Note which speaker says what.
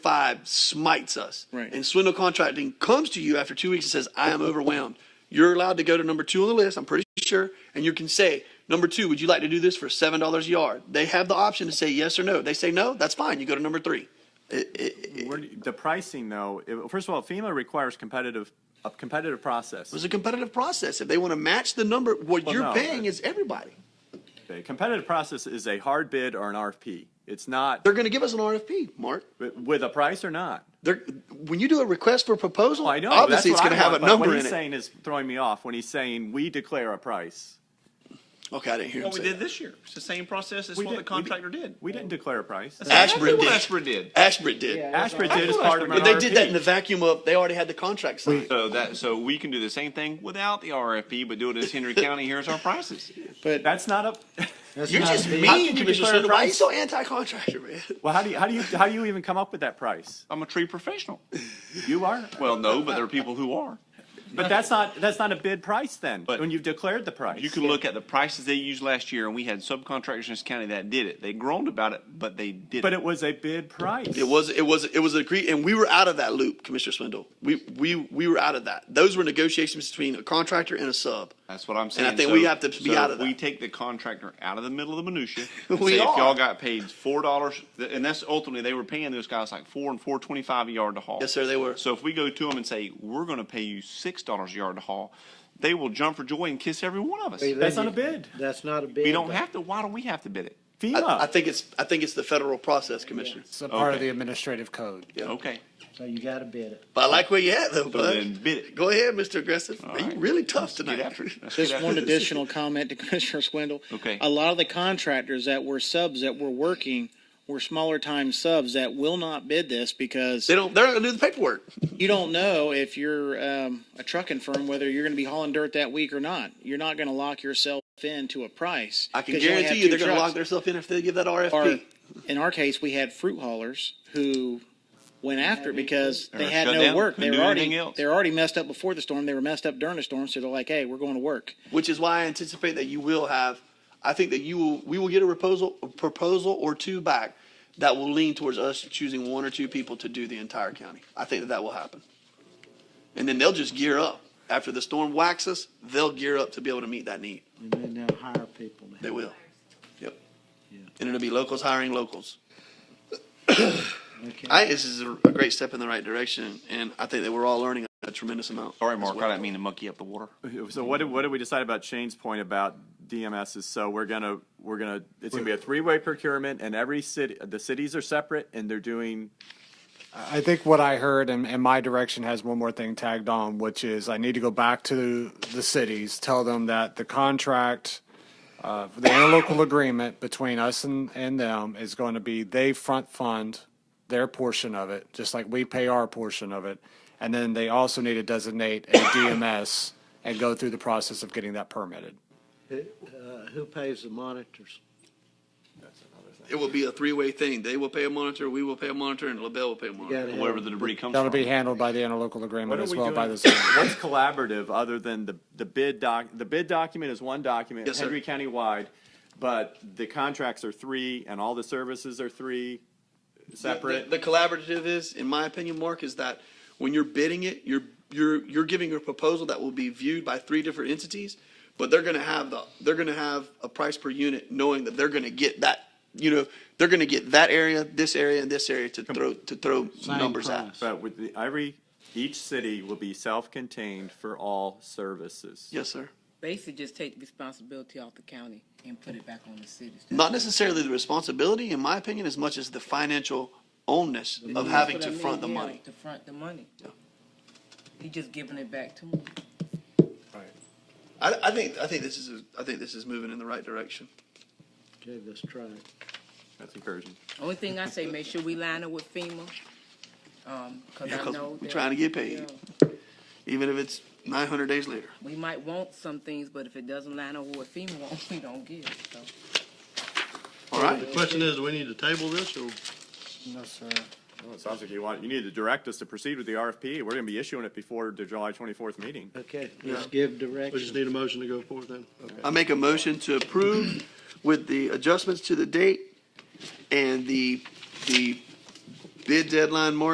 Speaker 1: five smites us.
Speaker 2: Right.
Speaker 1: And Swindle Contracting comes to you after two weeks and says, I am overwhelmed. You're allowed to go to number two on the list, I'm pretty sure, and you can say, Number two, would you like to do this for seven dollars a yard? They have the option to say yes or no. They say no, that's fine. You go to number three. It- it- it
Speaker 3: Where do you- the pricing though, it- first of all, FEMA requires competitive, a competitive process.
Speaker 1: was a competitive process. If they want to match the number, what
Speaker 3: Well,
Speaker 1: you're
Speaker 3: no,
Speaker 1: paying
Speaker 3: but-
Speaker 1: is everybody.
Speaker 3: A competitive process is a hard bid or an RFP. It's not
Speaker 1: They're going to give us an RFP, Mark.
Speaker 3: wi- with a price or not.
Speaker 1: They're, when you do a request for proposal,
Speaker 3: Well, I know. that's
Speaker 1: obviously it's
Speaker 3: what
Speaker 1: going to
Speaker 3: I
Speaker 1: have a
Speaker 3: want, but
Speaker 1: number
Speaker 3: What
Speaker 1: in
Speaker 3: he's
Speaker 1: it.
Speaker 3: saying is throwing me off when he's saying we declare a price.
Speaker 1: okay, I didn't hear
Speaker 2: What
Speaker 1: him
Speaker 2: we
Speaker 1: say
Speaker 2: did
Speaker 1: that.
Speaker 2: this year. It's the same process as
Speaker 3: We
Speaker 2: what the
Speaker 3: didn't- we
Speaker 2: contractor did.
Speaker 3: We didn't declare a price.
Speaker 2: That's
Speaker 1: Ashburn
Speaker 2: what
Speaker 1: did.
Speaker 2: Ashburn did.
Speaker 1: Ashbridge did.
Speaker 3: Ashford did as part of an
Speaker 1: But they did that in
Speaker 3: RFP.
Speaker 1: the vacuum of they already had the contract signed.
Speaker 4: So that so we can do the same thing without the RFP, but do it as Henry County. Here's our prices.
Speaker 5: But
Speaker 3: That's not a,
Speaker 5: that's
Speaker 1: You're
Speaker 5: not
Speaker 1: just
Speaker 5: the-
Speaker 3: How can
Speaker 1: mean,
Speaker 3: you
Speaker 1: Commissioner
Speaker 3: declare a
Speaker 1: Swindle. Why are you
Speaker 3: price?
Speaker 1: so anti-contractor, man?
Speaker 3: well, how do you, how do you, how do you even come up with that price?
Speaker 4: I'm a tree professional.
Speaker 3: You are,
Speaker 4: Well, no, but there are people who are.
Speaker 3: but that's not, that's not a bid price then,
Speaker 4: But-
Speaker 3: when you've declared the price.
Speaker 4: You can look at the prices they used last year, and we had subcontractors in this county that did it. They groaned about it, but they did
Speaker 3: But
Speaker 4: it.
Speaker 3: it was a bid price.
Speaker 1: It was it was it was agreed, and we were out of that loop, Commissioner Swindle. We we we were out of that. Those were negotiations between a contractor and a sub.
Speaker 4: That's what I'm
Speaker 1: I
Speaker 4: saying.
Speaker 1: think
Speaker 4: So-
Speaker 1: we have to be
Speaker 4: so
Speaker 1: out of
Speaker 4: if We
Speaker 1: that.
Speaker 4: take the contractor out of the middle of the minutia. and
Speaker 1: We
Speaker 4: say,
Speaker 1: are.
Speaker 4: If y'all got paid four dollars, and that's ultimately they were paying those guys like four and four twenty five a yard to haul.
Speaker 1: Yes, sir, they were.
Speaker 4: So if we go to them and say we're going to pay you six dollars a yard to haul, they will jump for joy and kiss every one of us.
Speaker 5: Wait,
Speaker 3: That's
Speaker 5: wait,
Speaker 3: not a bid.
Speaker 5: That's not a bid.
Speaker 4: We don't have to. Why do we have to bid it?
Speaker 3: FEMA.
Speaker 1: I, I think it's I think it's the federal process, Commissioner.
Speaker 5: It's a part of
Speaker 4: Okay.
Speaker 5: the administrative code,
Speaker 4: Okay.
Speaker 5: so you gotta bid it.
Speaker 1: But I like where you at though,
Speaker 4: So then
Speaker 1: bud.
Speaker 4: bid it.
Speaker 1: Go ahead, Mr. Aggressive. Man,
Speaker 4: right.
Speaker 1: You really tough
Speaker 4: Get
Speaker 1: tonight.
Speaker 4: after it. Let's get
Speaker 5: Just
Speaker 4: after
Speaker 5: one
Speaker 4: this.
Speaker 5: additional comment to Commissioner Swindle.
Speaker 4: Okay.
Speaker 5: A lot of the contractors that were subs that were working were smaller time subs that will not bid this because
Speaker 1: They don't. They're not gonna do the paperwork.
Speaker 5: you don't know if you're um, a trucking firm whether you're going to be hauling dirt that week or not. You're not going to lock yourself into a price.
Speaker 1: I can
Speaker 5: 'cause only
Speaker 1: guarantee
Speaker 5: have
Speaker 1: you,
Speaker 5: two
Speaker 1: they're gonna
Speaker 5: trucks.
Speaker 1: lock themselves in if they give that
Speaker 5: Or,
Speaker 1: RFP.
Speaker 5: in our case, we had fruit haulers who went after it because
Speaker 4: Or
Speaker 5: they had
Speaker 4: shut
Speaker 5: no
Speaker 4: down,
Speaker 5: work. They
Speaker 4: couldn't
Speaker 5: were
Speaker 4: do
Speaker 5: already
Speaker 4: anything else.
Speaker 5: they're already messed up before the storm. They were messed up during the storm, so they're like, "Hey, we're going to work."
Speaker 1: which is why I anticipate that you will have. I think that you will. We will get a proposal, a proposal or two back that will lean towards us choosing one or two people to do the entire county. I think that that will happen, and then they'll just gear up after the storm waxes. They'll gear up to be able to meet that need.
Speaker 5: And then they'll hire people.
Speaker 1: They will. Yep. And it'll be locals hiring locals. I, this is a, a great step in the right direction, and I think that we're all learning a tremendous amount.
Speaker 4: Sorry,
Speaker 1: as
Speaker 4: Mark.
Speaker 1: well.
Speaker 4: I didn't mean to monkey up the water.
Speaker 3: So what did, what did we decide about Shane's point about DMS is so we're gonna, we're gonna, it's gonna be a three-way procurement and every city, the cities are separate and they're doing,
Speaker 6: I think what I heard and, and my direction has one more thing tagged on, which is I need to go back to the cities, tell them that the contract, uh, the interlocal agreement between us and, and them is going to be they front fund their portion of it, just like we pay our portion of it. And then they also need to designate a DMS and go through the process of getting that permitted.
Speaker 5: Who pays the monitors?
Speaker 1: It will be a three-way thing. They will pay a monitor, we will pay a monitor, and LaBelle will pay a monitor.
Speaker 5: gotta have-
Speaker 4: Wherever the debris comes
Speaker 6: That'll
Speaker 4: from.
Speaker 6: be handled by the interlocal
Speaker 3: what
Speaker 6: agreement
Speaker 3: are
Speaker 6: as
Speaker 3: we
Speaker 6: well
Speaker 3: doing?
Speaker 6: by the.
Speaker 3: What's
Speaker 6: city.
Speaker 3: collaborative other than the, the bid doc, the bid document is one document,
Speaker 1: Yes, sir.
Speaker 3: Henry County wide, but the contracts are three and all the services are three separate.
Speaker 1: The, the collaborative is, in my opinion, Mark, is that when you're bidding it, you're you're you're giving a proposal that will be viewed by three different entities, but they're going to have the they're going to have a price per unit, knowing that they're going to get that you know they're going to get that area, this area, and this area to throw to throw numbers at.
Speaker 3: But with the, every, each city will be self-contained for all services.
Speaker 1: Yes, sir.
Speaker 7: Basically, just take the responsibility off the county and put it back on the cities.
Speaker 1: Not necessarily the responsibility, in my opinion, as much as the financial onus of having
Speaker 7: That's
Speaker 1: to
Speaker 7: what I mean,
Speaker 1: front the
Speaker 7: yeah,
Speaker 1: money.
Speaker 7: To front the money. He just giving it back to them.
Speaker 1: I, I think I think this is a, I think this is moving in the right direction.
Speaker 5: Okay, let's try it.
Speaker 3: That's encouraging.
Speaker 7: Only thing I say, make sure we line up with FEMA. Um, cause
Speaker 1: Yeah,
Speaker 7: I
Speaker 1: 'cause
Speaker 7: know.
Speaker 1: we
Speaker 7: that-
Speaker 1: trying to get paid.
Speaker 7: Yeah.
Speaker 1: Even if it's 900 days later.
Speaker 7: We might want some things, but if it doesn't line up with what FEMA wants, we don't get it, so.
Speaker 1: All right.
Speaker 8: Question is, do we need to table this or?
Speaker 6: No, sir.
Speaker 3: Well, it sounds like you want, you need to direct us to proceed with the RFP. We're gonna be issuing it before the July twenty-fourth meeting.
Speaker 5: Okay, let's give direction.
Speaker 8: We just need a motion to go forward then.
Speaker 1: I make a motion to approve with the adjustments to the date and the, the Bid deadline, March